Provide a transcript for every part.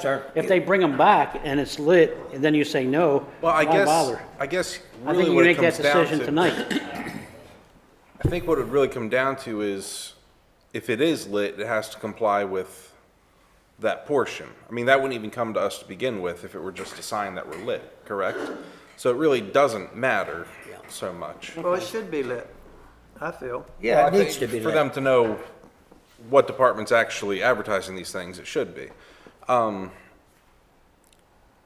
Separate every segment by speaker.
Speaker 1: Sir?
Speaker 2: If they bring them back and it's lit, and then you say no,
Speaker 3: Well, I
Speaker 2: why
Speaker 3: guess,
Speaker 2: bother?
Speaker 3: I guess
Speaker 2: I
Speaker 3: really
Speaker 2: think you
Speaker 3: what it
Speaker 2: make that
Speaker 3: comes down
Speaker 2: decision
Speaker 3: to,
Speaker 2: tonight.
Speaker 3: I think what it really come down to is if it is lit, it has to comply with that portion. I mean, that wouldn't even come to us to begin with if it were just a sign that were lit, correct? So it really doesn't matter so much.
Speaker 4: Well, it should be lit, I feel.
Speaker 1: Yeah,
Speaker 3: I
Speaker 1: it needs to
Speaker 3: think
Speaker 1: be
Speaker 3: For
Speaker 1: lit.
Speaker 3: them to know what department's actually advertising these things, it should be. Um,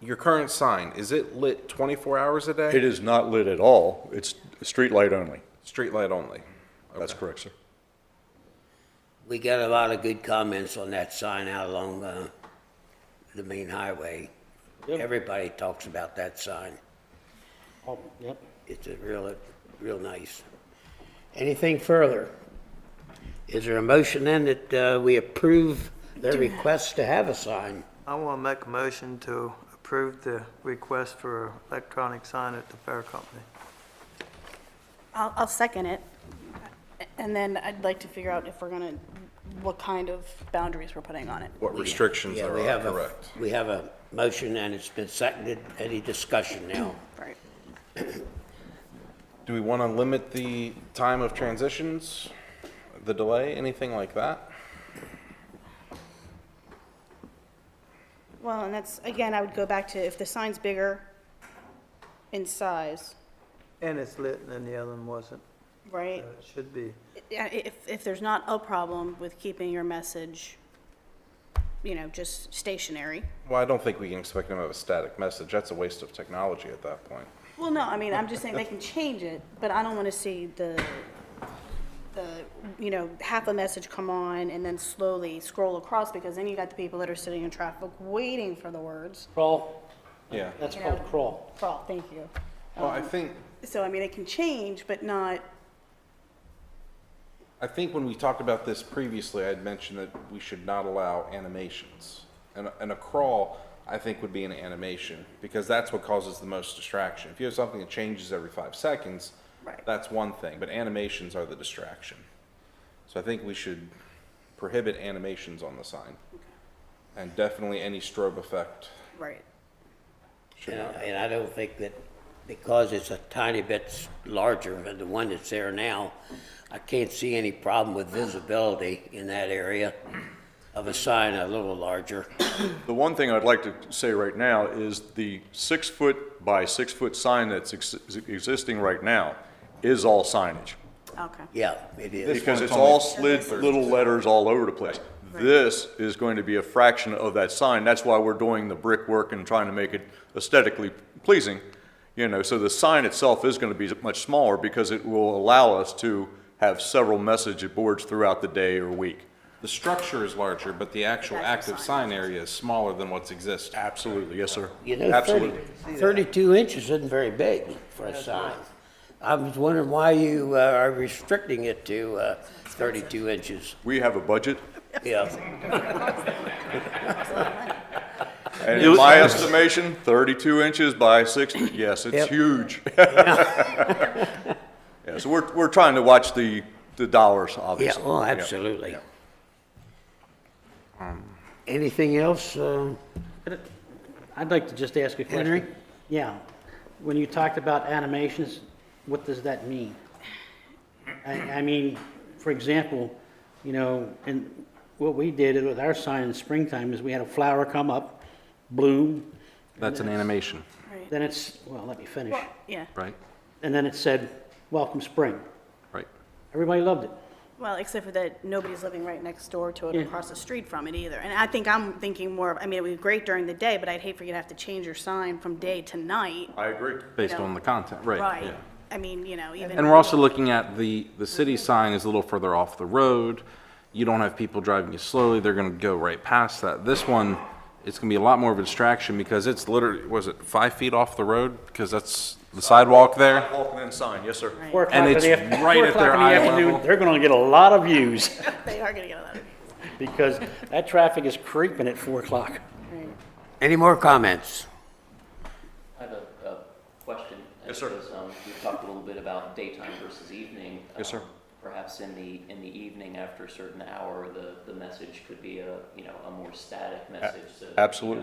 Speaker 3: Your current sign, is it lit twenty-four hours a day?
Speaker 5: It is not lit at all. It's street light only.
Speaker 3: Streetlight only?
Speaker 5: That's correct, sir.
Speaker 1: We got a lot of good comments on that sign out along uh, the main highway. Everybody talks about that sign.
Speaker 2: Oh, yep.
Speaker 1: It's a real, real nice. Anything further? Is there a motion then that uh, we approve their request to have a sign?
Speaker 4: I want to make a motion to approve the request for electronic sign at the fair company.
Speaker 6: I'll, I'll second it. And then I'd like to figure out if we're gonna, what kind of boundaries we're putting on it.
Speaker 3: What restrictions
Speaker 1: Yeah,
Speaker 3: there
Speaker 1: we
Speaker 3: are,
Speaker 1: have a-
Speaker 3: correct?
Speaker 1: We have a motion and it's been seconded. Any discussion now?
Speaker 6: Right.
Speaker 3: Do we want to limit the time of transitions, the delay, anything like that?
Speaker 6: Well, and that's, again, I would go back to if the sign's bigger in size,
Speaker 4: And it's lit and the other one wasn't.
Speaker 6: right?
Speaker 4: So It should be.
Speaker 6: Yeah, i- If, if there's not a problem with keeping your message, you know, just stationary.
Speaker 3: Well, I don't think we can expect them to have a static message. That's a waste of technology at that point.
Speaker 6: Well, no, I mean, I'm just saying they can change it, but I don't want to see the, the, you know, half a message come on and then slowly scroll across because then you got the people that are sitting in traffic waiting for the words.
Speaker 2: Crawl,
Speaker 3: Yeah.
Speaker 2: that's called crawl.
Speaker 6: Crawl, thank you.
Speaker 3: Well, I think,
Speaker 6: So, I mean, it can change, but not,
Speaker 3: I think when we talked about this previously, I had mentioned that we should not allow animations. And, a- and a crawl, I think, would be an animation, because that's what causes the most distraction. If you have something that changes every five seconds,
Speaker 6: Right.
Speaker 3: that's one thing, but animations are the distraction. So I think we should prohibit animations on the sign. And definitely any strobe effect
Speaker 6: right.
Speaker 3: should
Speaker 1: You know,
Speaker 3: not.
Speaker 1: And I don't think that, because it's a tiny bit s- larger than the one that's there now, I can't see any problem with visibility in that area of a sign a little larger.
Speaker 5: The one thing I'd like to say right now is the six-foot by six-foot sign that's ex- existing right now is all signage.
Speaker 6: Okay.
Speaker 1: Yeah, it is.
Speaker 5: Because
Speaker 3: one's
Speaker 5: it's all
Speaker 3: only-
Speaker 5: slid little letters all over the place. This is going to be a fraction of that sign. That's why we're doing the brickwork and trying to make it aesthetically pleasing. You know, so the sign itself is going to be much smaller because it will allow us to have several message boards throughout the day or week.
Speaker 3: The structure is larger, but the actual
Speaker 6: Actual
Speaker 3: active sign area is smaller than what's existing.
Speaker 5: Absolutely, yes, sir.
Speaker 1: You know,
Speaker 5: Absolutely.
Speaker 1: 30 32 inches isn't very big for a sign. I was wondering why you uh, are restricting it to uh, 32 inches.
Speaker 5: We have a budget,
Speaker 1: Yeah,
Speaker 5: and in my estimation, 32 inches by 60, yes,
Speaker 1: Yep.
Speaker 5: it's huge. Yeah, so we're, we're trying to watch the, the dollars,
Speaker 1: yeah,
Speaker 5: obviously.
Speaker 1: oh,
Speaker 5: Yeah.
Speaker 1: absolutely. Anything else? uh,
Speaker 2: I'd like to just ask a question.
Speaker 1: Henry?
Speaker 2: Yeah, when you talked about animations, what does that mean? I, I mean, for example, you know, and what we did with our sign in springtime is we had a flower come up, bloom,
Speaker 3: That's an animation,
Speaker 6: Right.
Speaker 2: then it's, well, let me finish.
Speaker 6: Well, yeah.
Speaker 3: right?
Speaker 2: And then it said, welcome spring.
Speaker 3: Right.
Speaker 2: Everybody loved it.
Speaker 6: Well, except for that nobody's living right next door to it or
Speaker 2: Yeah.
Speaker 6: across the street from it either. And I think I'm thinking more of, I mean, it would be great during the day, but I'd hate for you to have to change your sign from day to night.
Speaker 5: I agree.
Speaker 3: Based
Speaker 6: No.
Speaker 3: on the content, right.
Speaker 6: Right.
Speaker 3: yeah.
Speaker 6: I mean, you know, even.
Speaker 3: And we're also looking at the, the city sign is a little further off the road. You don't have people driving you slowly, they're gonna go right past that. This one, it's gonna be a lot more of a distraction because it's literally, was it five feet off the road? Because that's the sidewalk there.
Speaker 5: Walk and then sign, yes, sir.
Speaker 2: Four o'clock
Speaker 3: And
Speaker 2: in the
Speaker 3: it's
Speaker 2: afternoon.
Speaker 3: right
Speaker 2: four
Speaker 3: at
Speaker 2: o'clock
Speaker 3: their
Speaker 2: in the
Speaker 3: eye
Speaker 2: afternoon,
Speaker 3: level.
Speaker 2: They're gonna get a lot of views,
Speaker 6: They are gonna get a lot of.
Speaker 2: because that traffic is creeping at four o'clock.
Speaker 1: Any more comments?
Speaker 7: I have a, a question. um,
Speaker 5: Yes, sir.
Speaker 7: You talked a little bit about daytime versus evening.
Speaker 5: Yes, sir.
Speaker 7: Um, Perhaps in the, in the evening after a certain hour, the, the message could be a, you know, a more static message. so that, you know,
Speaker 5: absolutely.